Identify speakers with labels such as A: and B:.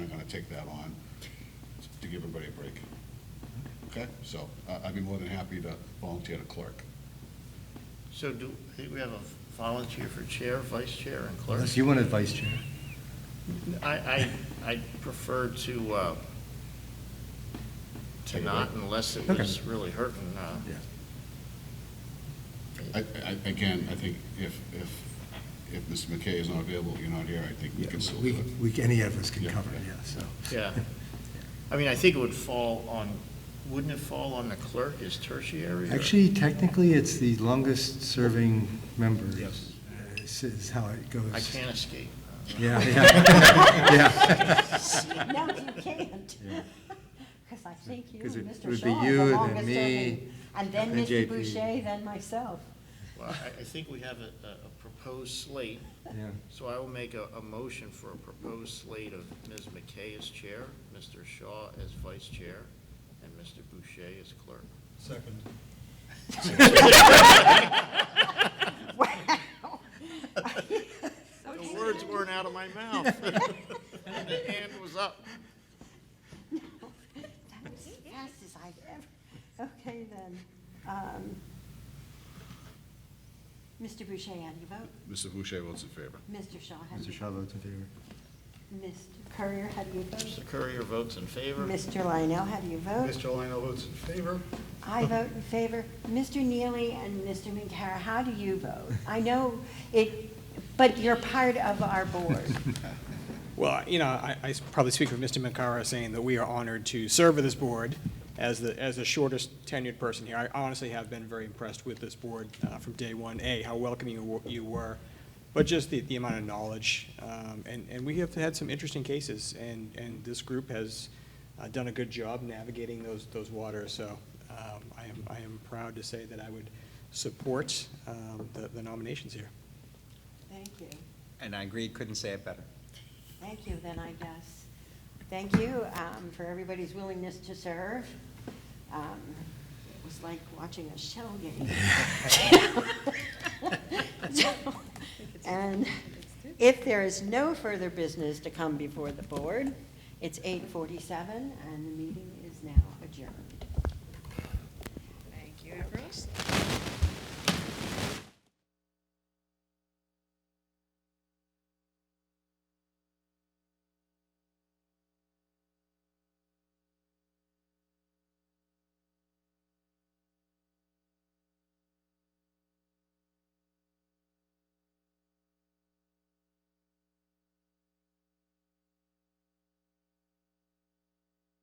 A: take that on to give everybody a break. Okay, so I- I'd be more than happy to volunteer to clerk.
B: So do, I think we have a volunteer for chair, vice chair, and clerk.
C: Unless you want a vice chair.
B: I, I, I prefer to, uh, to
A: Take a
B: not
A: vote.
B: unless it
C: Okay.
B: was really hurting, uh,
A: I, I, again, I think if, if, if Mr. McKay is not available, you're not here, I think we
C: Yeah,
A: can still
C: we,
A: do it.
C: we, any of us can
A: Yeah.
C: cover it, yeah, so.
B: yeah. I mean, I think it would fall on, wouldn't it fall on the clerk as tertiary? or-
C: Actually, technically, it's the longest-serving member. Yes. Is how it goes.
B: I can't escape.
C: Yeah, yeah, yeah.
D: No, you can't. Because I think you
C: 'Cause
D: and
C: it
D: Mr.
C: would be
D: Shaw are
C: you,
D: the
C: then
D: longest
C: me,
D: serving. And then
C: then
D: Mr.
C: JP.
D: Boucher, then myself.
B: Well, I, I think we have a, a proposed slate,
C: Yeah.
B: so I will make a, a motion for a proposed slate of Ms. McKay as chair, Mr. Shaw as vice chair, and Mr. Boucher as clerk.
E: Second.
B: The words weren't out of my mouth. The hand was up.
D: That was the fastest I've ever, okay then. Um, Mr. Boucher, how do you vote?
A: Mr. Boucher votes in favor.
D: Mr. Shaw, how do
C: Mr.
D: you?
C: Shaw votes in favor.
D: Mr. Courier, how do you vote?
B: Mr. Courier votes in favor.
D: Mr. Lionel, how do you vote?
E: Mr. Lionel votes in favor.
D: I vote in favor. Mr. Neely and Mr. McCara, how do you vote? I know it, but you're part of our board.
F: Well, you know, I, I s- probably speak for Mr. Macara saying that we are honored to serve with this board as the, as the shortest tenured person here. I honestly have been very impressed with this board uh, from day one, A, how welcoming you were- you were, but just the, the amount of knowledge. Um, And, and we have had some interesting cases, and, and this group has uh, done a good job navigating those, those waters. So um, I am, I am proud to say that I would support um, the the nominations here.
D: Thank you.
G: And I agree, couldn't say it better.
D: Thank you, then, I guess. Thank you um, for everybody's willingness to serve. Um, It was like watching a shell game. So, And if there is no further business to come before the board, it's 8:47, and the meeting is now adjourned.
H: Thank you, Ambrose.